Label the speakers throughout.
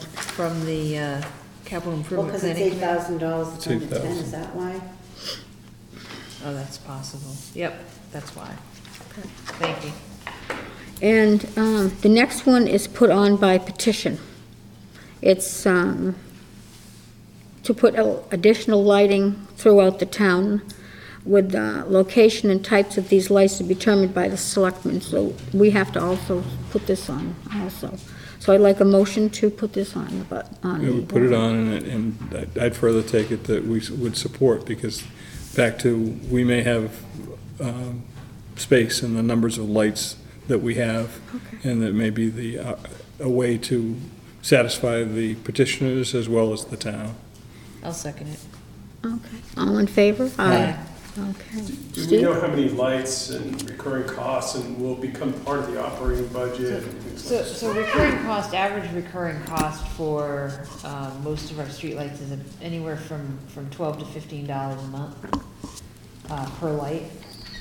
Speaker 1: from the uh, capital
Speaker 2: Well,
Speaker 1: improvement
Speaker 2: because it's
Speaker 1: planning
Speaker 2: eight
Speaker 1: committee?
Speaker 2: thousand dollars to turn to ten, is that why?
Speaker 1: Oh, that's possible. Yep, that's why. Thank you.
Speaker 3: And um, the next one is put on by petition. It's um, to put a- additional lighting throughout the town with uh, location and types of these lights to be determined by the selectmen. So we have to also put this on also. So I'd like a motion to put this on, but on.
Speaker 4: We
Speaker 3: the-
Speaker 4: would put it on, and- and I'd- I'd further take it that we would support, because back to, we may have um, space and the numbers of lights that we have, and that may be the, uh, a way to satisfy the petitioners as well as the town.
Speaker 1: I'll second it.
Speaker 3: Okay, all in favor?
Speaker 1: Aye.
Speaker 3: Okay.
Speaker 5: Do we
Speaker 3: Steve?
Speaker 5: know how many lights and recurring costs and will become part of the operating budget and things
Speaker 6: So,
Speaker 5: like that?
Speaker 6: so recurring cost, average recurring cost for, um, most of our streetlights is anywhere from, from twelve to fifteen dollars a month, uh, per light.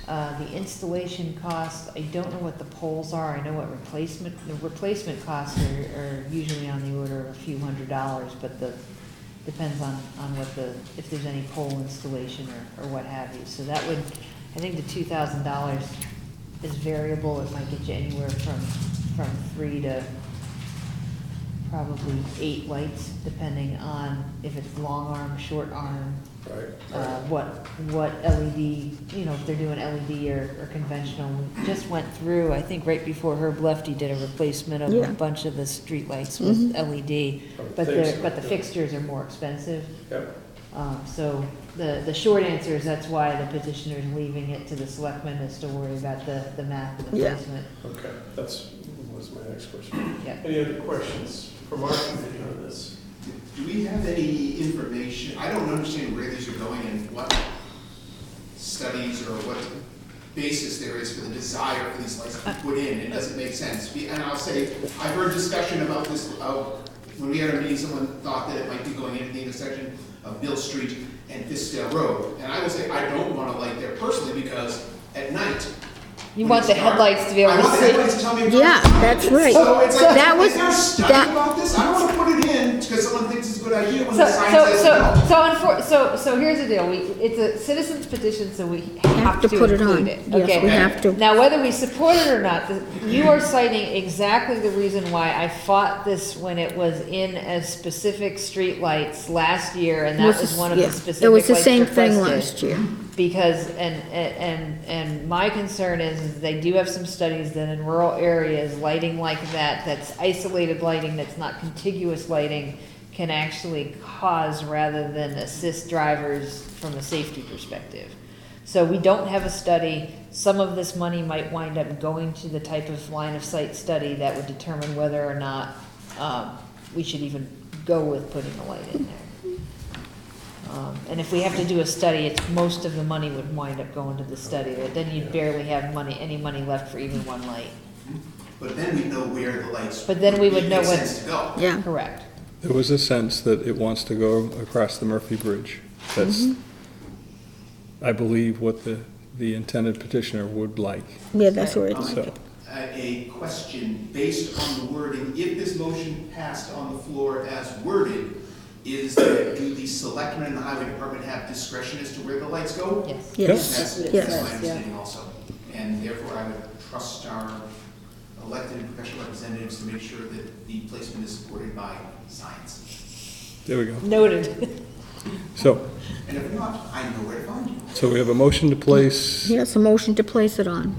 Speaker 6: Uh, the installation cost, I don't know what the poles are, I know what replacement, the replacement costs are, are usually on the order of a few hundred dollars, but the, depends on, on what the, if there's any pole installation or, or what have you. So that would, I think the two thousand dollars is variable, it might get you anywhere from, from three to probably eight lights, depending on if it's long arm, short arm,
Speaker 5: Right,
Speaker 6: uh, what, what LED, you know, if they're doing LED or, or conventional. We Just went through, I think right before Herb left, he did a replacement of
Speaker 3: Yeah. Mm-hmm.
Speaker 6: a bunch of the streetlights with LED.
Speaker 5: I would
Speaker 6: But
Speaker 5: think
Speaker 6: Oh, the,
Speaker 5: so,
Speaker 6: but the
Speaker 5: yeah.
Speaker 6: fixtures are more expensive.
Speaker 5: Yep,
Speaker 6: Um, so the, the short answer is that's why the petitioner's leaving it to the selectmen is to worry about the, the math and the
Speaker 3: Yeah.
Speaker 6: placement.
Speaker 5: okay, that's, was my next question.
Speaker 6: Yeah.
Speaker 5: Any other questions from our committee on this?
Speaker 7: Do we have any information, I don't understand where these are going and what studies or what basis there is for the desire for these lights to be put in, it doesn't make sense. We- And I'll say, I've heard discussion about this, uh, when we had our meeting, someone thought that it might be going into the intersection of Mill Street and Fiskdale Road. And I will say, I don't want to light there personally, because at night.
Speaker 6: You
Speaker 7: when
Speaker 6: want
Speaker 7: it's
Speaker 6: the
Speaker 7: dark,
Speaker 6: headlights to be able
Speaker 7: I
Speaker 6: to
Speaker 7: want the
Speaker 6: see.
Speaker 7: headlights to tell me. where
Speaker 3: Yeah,
Speaker 7: it's dark.
Speaker 3: that's right.
Speaker 7: So it's like,
Speaker 3: That was-
Speaker 7: is there a study
Speaker 3: that-
Speaker 7: about this? I don't want to put it in because someone thinks it's a good idea when
Speaker 6: So,
Speaker 7: the sign
Speaker 6: so,
Speaker 7: says
Speaker 6: so,
Speaker 7: no.
Speaker 6: so, unfor- so, so here's the deal, we, it's a citizen's petition, so we have to
Speaker 3: put it
Speaker 6: include
Speaker 3: on.
Speaker 6: it,
Speaker 3: Yes,
Speaker 6: okay?
Speaker 3: we have to.
Speaker 6: Now, whether we support it or not, th- you are citing exactly the reason why I fought this when it was in as specific streetlights last year, and that
Speaker 3: Was
Speaker 6: was
Speaker 3: this-
Speaker 6: one of the
Speaker 3: yeah.
Speaker 6: specific
Speaker 3: It was the
Speaker 6: lights
Speaker 3: same thing
Speaker 6: requested.
Speaker 3: last year.
Speaker 6: Because, and, and, and- and my concern is, is they do have some studies that in rural areas, lighting like that, that's isolated lighting, that's not contiguous lighting, can actually cause rather than assist drivers from a safety perspective. So we don't have a study, some of this money might wind up going to the type of line of sight study that would determine whether or not, um, we should even go with putting a light in there. Um, And if we have to do a study, it's, most of the money would wind up going to the study, but then you'd barely have money, any money left for even one light.
Speaker 7: But then we know where the lights.
Speaker 6: But then we would
Speaker 7: it
Speaker 6: know
Speaker 7: makes
Speaker 6: what-
Speaker 7: sense to go.
Speaker 3: Yeah.
Speaker 6: Correct.
Speaker 4: There was a sense that it wants to go across the Murphy Bridge. That's, I believe, what the, the intended petitioner would like,
Speaker 3: Yeah, that's where
Speaker 7: Um,
Speaker 3: it's,
Speaker 4: so.
Speaker 7: uh, A question based on the wording, if this motion passed on the floor as worded, is that do the selectmen and the highway department have discretion as to where the lights go?
Speaker 6: Yes.
Speaker 3: yes.
Speaker 7: That's,
Speaker 2: Yes.
Speaker 7: that's my
Speaker 2: Yes.
Speaker 7: understanding also. And therefore, I would trust our elected and professional representatives to make sure that the placement is supported by science.
Speaker 4: There we go.
Speaker 6: Noted.
Speaker 4: So,
Speaker 7: And if not, I know where to find you.
Speaker 4: so we have a motion to place
Speaker 3: Yes, a motion to place it on.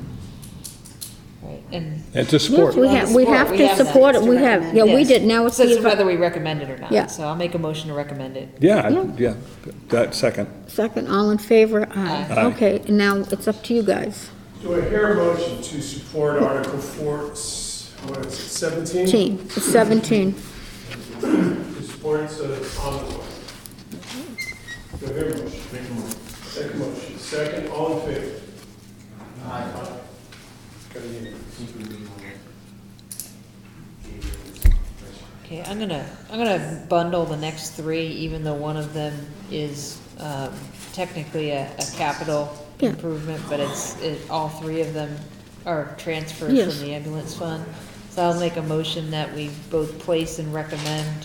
Speaker 6: Right, and
Speaker 4: and to
Speaker 3: Yes,
Speaker 4: support.
Speaker 3: we have, we
Speaker 6: Support,
Speaker 3: have
Speaker 6: we
Speaker 3: to
Speaker 6: have that.
Speaker 3: support it,
Speaker 2: It's
Speaker 3: we
Speaker 2: to
Speaker 3: have,
Speaker 2: recommend.
Speaker 3: yeah, we
Speaker 6: Yes.
Speaker 3: did, now it's
Speaker 6: So
Speaker 3: the,
Speaker 6: it's
Speaker 3: advi-
Speaker 6: whether we recommend it or not.
Speaker 3: Yeah.
Speaker 6: So I'll make a motion to recommend it.
Speaker 4: Yeah,
Speaker 3: Yeah.
Speaker 4: I- yeah, that second.
Speaker 3: second, all in favor?
Speaker 4: Aye.
Speaker 3: Aye. Okay, and now it's up to you guys.
Speaker 5: Do I hear a motion to support Article four, s- what is it, seventeen?
Speaker 3: Team, it's seventeen.
Speaker 5: To support the envelope. Do I hear a motion? Make a motion. Second motion, second, all in favor? Aye. Got a unanimous.
Speaker 6: Okay, I'm gonna, I'm gonna bundle the next three, even though one of them is um, technically a, a capital
Speaker 3: Yeah.
Speaker 6: improvement, but it's, it, all three of them are transfers
Speaker 3: Yes.
Speaker 6: from the ambulance fund. So I'll make a motion that we both place and recommend